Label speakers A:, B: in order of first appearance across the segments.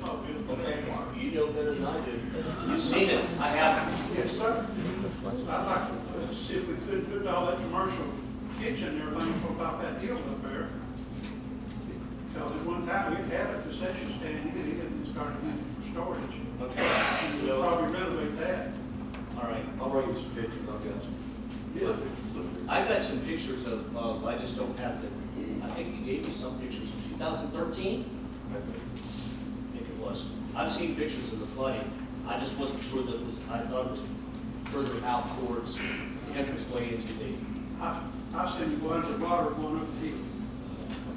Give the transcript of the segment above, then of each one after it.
A: Okay, you know better than I do. You've seen it, I haven't.
B: Yes, sir. I'd like to see if we could put all that commercial kitchen and everything for about that deal up there. Because at one time, we had a concession stand in it and started using it for storage.
A: Okay,
B: And we'll
A: so,
B: probably renovate that.
A: all right.
C: I'll bring you some pictures, I've got some.
B: Yeah.
A: I've got some pictures of, of, I just don't have them. I think you gave me some pictures from 2013, I think it was. I've seen pictures of the flooding. I just wasn't sure that it was, I thought it was further out towards the entranceway into the,
B: I, I've seen the ones that water one up the hill.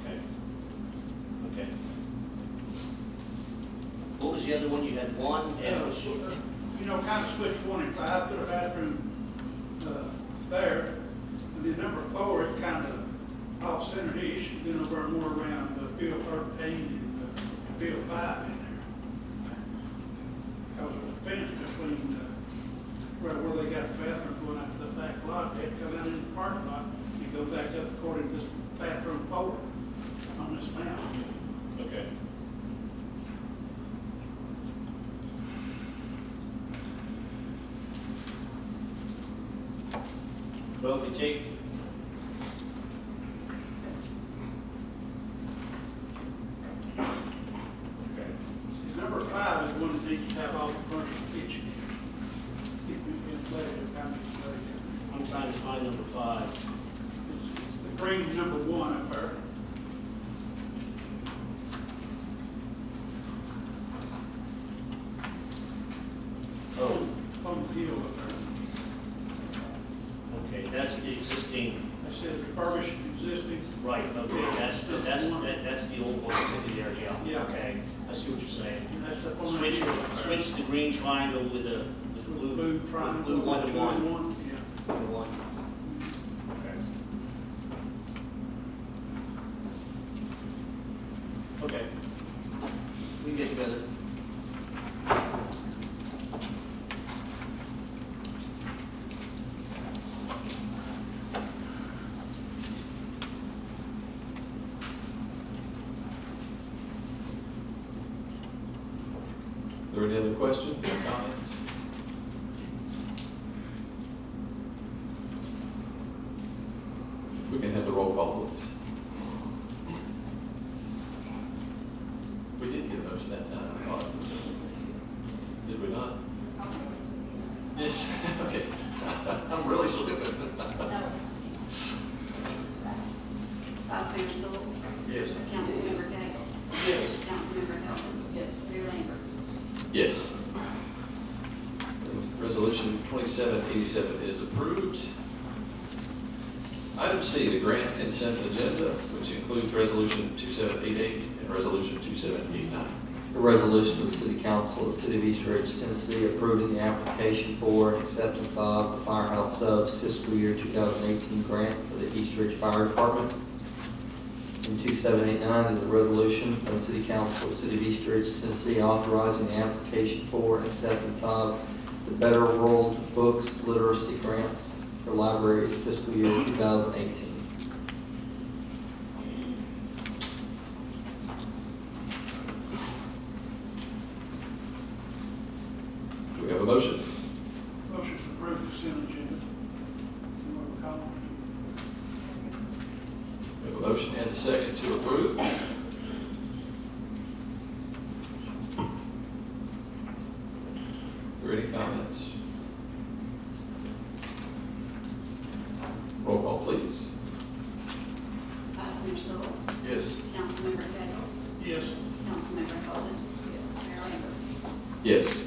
A: okay. Okay. What was the other one? You had one and it was,
B: You know, kind of switch one and five, put a bathroom, uh, there. And then number four, it kind of off-center-ish, then over more around uh, field thirteen and, uh, and field five in there. Cause there's a fence between, uh, right where they got the bathroom going out to the back lot, they had to come out in the parking lot and go back up according to this bathroom four on this map.
A: okay. Well, if you take Okay.
B: Number five is one that needs to have all the commercial kitchen. If we can let it, if I'm just letting it.
A: I'm trying to find number five.
B: It's it's the green number one up there.
A: Oh,
B: On the hill up there.
A: okay, that's the existing,
B: That says refurbished existing.
A: right, okay, that's, the that's, that- that's the old one that's in there, yeah.
B: Yeah.
A: Okay, I see what you're saying.
B: And that's up on the
A: Switch,
B: hill up there.
A: switch the green triangle with the, with the
B: With
A: blue.
B: the blue triangle.
A: Blue one to
B: blue
A: one.
B: Yeah.
A: Blue one. Okay. Okay. We get together.
D: There any other questions or comments? We can have the roll call, please. We did get a motion that time, I thought. Did we not? Yes, okay. I'm really slipping.
E: Vice Mayor Sewell.
D: Yes.
E: Councilmember Gay.
D: Yes.
E: Councilmember Hilton. Yes. Mayor Lambert.
D: Yes. Resolution 2787 is approved. Item C, the grant consent agenda, which includes Resolution 2788 and Resolution 2789.
F: A resolution of the City Council of the City of East Ridge, Tennessee, approving the application for and acceptance of the Firehouse Subs fiscal year 2018 grant for the East Ridge Fire Department. And 2789 is a resolution of the City Council of the City of East Ridge, Tennessee, authorizing the application for and acceptance of the Better World Books Literacy Grants for Libraries fiscal year 2018.
D: Do we have a motion?
B: Motion to approve consent agenda. You want to call it?
D: We have a motion and a second to approve. Are there any comments? Roll call, please.
E: Vice Mayor Sewell.
D: Yes.
E: Councilmember Gay.
B: Yes.
E: Councilmember Hilton. Yes. Mayor Lambert.
D: Yes.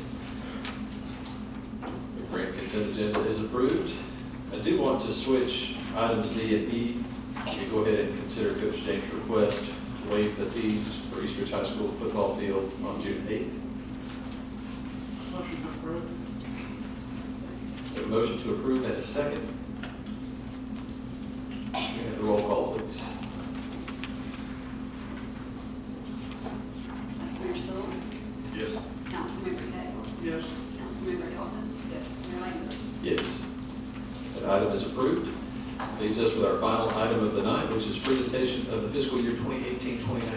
D: The grant consent agenda is approved. I do want to switch items D and E. We go ahead and consider Coach James' request to waive the fees for East Ridge High School football field on June eighth.
B: Motion to approve.
D: We have a motion to approve and a second. We have the roll call, please.
E: Vice Mayor Sewell.
D: Yes.
E: Councilmember Gay.
B: Yes.
E: Councilmember Hilton. Yes. Mayor Lambert.
D: Yes. That item is approved. Leaves us with our final item of the night, which is presentation of the fiscal year 2018-2019